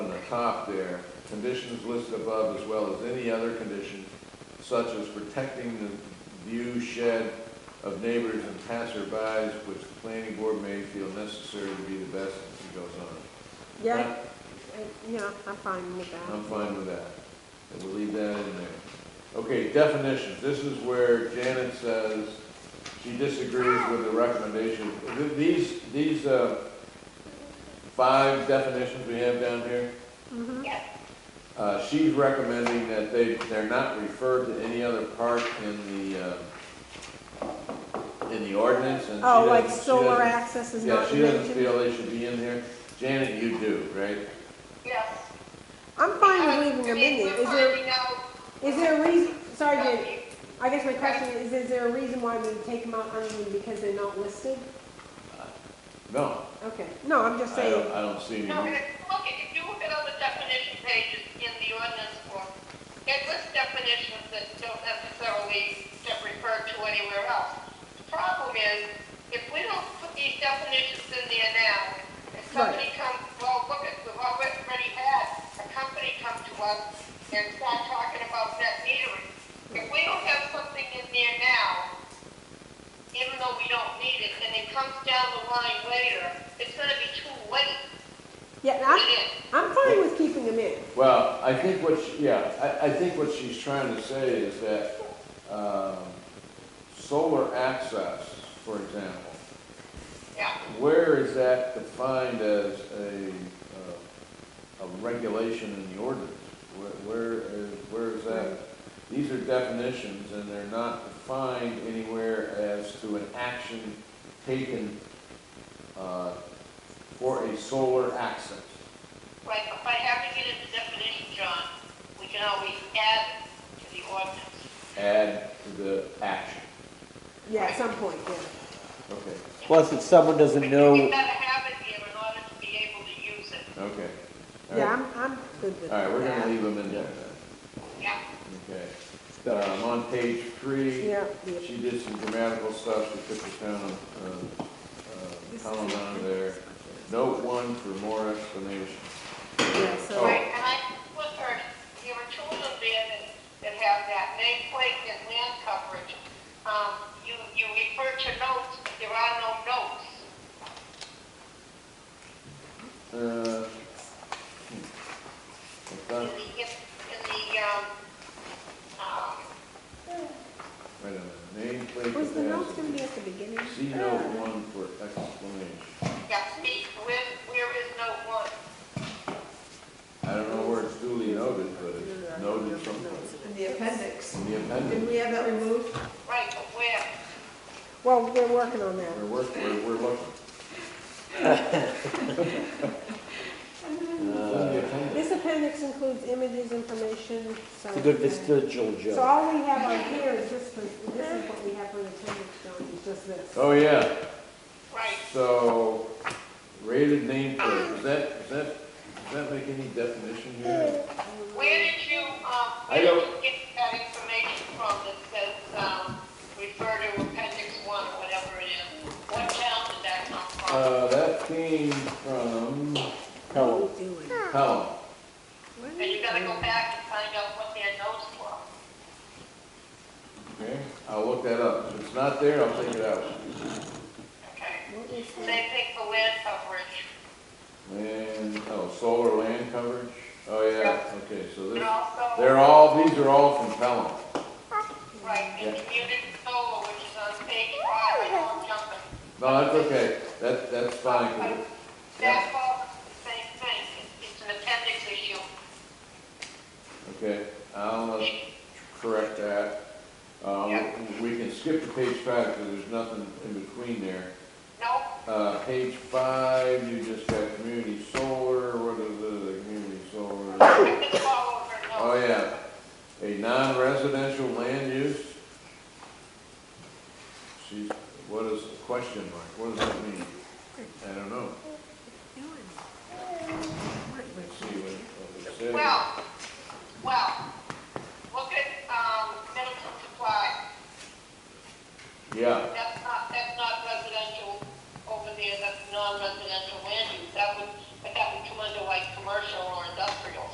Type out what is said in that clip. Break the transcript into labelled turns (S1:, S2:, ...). S1: top there, conditions listed above as well as any other condition such as protecting the view shed of neighbors and passerbys, which the planning board may feel necessary to be the best, and she goes on.
S2: Yeah, uh, yeah, I'm fine with that.
S1: I'm fine with that. And we'll leave that in there. Okay, definitions. This is where Janet says she disagrees with the recommendation. Th- These, these, uh, five definitions we have down here,
S2: Mhm.
S1: uh, she's recommending that they, they're not referred to any other part in the, uh, in the ordinance and she
S2: Oh, like
S1: doesn't- she
S2: solar
S1: doesn't-
S2: access is
S1: Yeah,
S2: not
S1: she doesn't
S2: mentioned?
S1: feel they should be in there. Janet, you do, right?
S3: Yes.
S2: I'm fine with leaving them in there. Is there, is there a reason, sorry, Jan, I guess my question is, is there a reason why we take them out only because they're not listed?
S1: No,
S2: Okay, no, I'm just
S1: I don't,
S2: saying,
S1: I don't see any.
S3: No, if- look, if you look at all the definition pages in the ordinance form, it lists definitions that don't necessarily get referred to anywhere else. The Problem is, if we don't put these definitions in there now, if somebody comes, well, look at, we've already had a company come to us and start talking about net metering. If we don't have something in there now, even though we don't need it, and it comes down the line later, it's gonna be too late
S2: yeah,
S3: put
S2: I'm,
S3: it in.
S2: I'm fine with keeping them in.
S1: Well, I think what, she- yeah, I, I think what she's trying to say is that, um, solar access, for example,
S3: Yeah,
S1: where is that defined as a, uh, a regulation in the ordinance? Where- Where is, where is that? These are definitions, and they're not defined anywhere as to an action taken uh, for a solar access.
S3: right, but by having it in the definition, John, we can always add to the ordinance.
S1: Add to the action,
S2: Yeah, at some point, yeah.
S1: okay,
S4: Plus, if someone doesn't
S3: We
S4: know,
S3: gotta have it here in order to be able to use it,
S1: okay. All
S2: Yeah,
S1: right.
S2: I'm, I'm good with
S1: All
S2: that.
S1: right, we're gonna leave them in there then,
S3: yeah.
S1: okay. Um, On page three.
S2: Yeah, yeah.
S1: She did some grammatical stuff, she took the town, uh, uh, column out of there. Note one for more explanation.
S2: yeah,
S1: Oh.
S2: so.
S3: Right, and I, with her, there were children there that, that have that nameplate and land coverage. Um, you, you refer to notes, but there are no notes.
S1: Uh, hmm.
S3: In
S1: I
S3: the,
S1: thought-
S3: in the, um, um,
S1: Wait a minute, nameplate
S2: Was the notes gonna
S1: capacity.
S2: be at the beginning?
S1: See note one for explanation.
S3: yeah, see, where, where is note one?
S1: I don't know where it's duly noted, but it's noted someplace.
S5: In the appendix.
S1: In the
S5: Didn't
S1: appendix,
S5: we have that removed?
S3: Right, but where?
S2: Well, we're working on that.
S1: we're working, we're, we're looking. It's in the appendix.
S2: This appendix includes images, information, so.
S4: it's a good vestigial
S2: So
S4: joke.
S2: all we have on here is just, the- this is what we have for the appendix, John, is just this.
S1: Oh, yeah.
S3: Right,
S1: So, rated nameplate, does that, does that, does that make any definition here?
S3: Where did you, um,
S1: I
S3: where did
S1: don't-
S3: you get that information from that says, um, refer to appendix one, or whatever it is? What town did that come from?
S1: Uh, that came from
S4: Hello.
S1: Pelham.
S3: And you gotta go back and find out what their notes were.
S1: Okay, I'll look that up. If it's not there, I'll take it out.
S3: Okay.
S2: What is that?
S3: Same thing for land coverage.
S1: And, oh, solar land coverage? Oh, yeah, okay, so
S3: And
S1: this,
S3: also.
S1: they're all, these are all from Pelham.
S3: Right, and
S1: Yeah.
S3: community solar, which is on page five, I know I'm jumping.
S1: No, that's okay, that, that's fine. 'cause it-
S3: That falls, the same thing, It's- it's an appendix issue.
S1: Okay, I'll uh, correct that. Uh, we can skip to page five, because there's nothing in between there.
S3: No,
S1: Uh, page five, you just got community solar, what is it, the community solar?
S3: I can follow her notes.
S1: Oh, yeah, a non-residential land use? She's, what is, question mark, what does that mean? I don't know, let's see what, what it says.
S3: Well, um,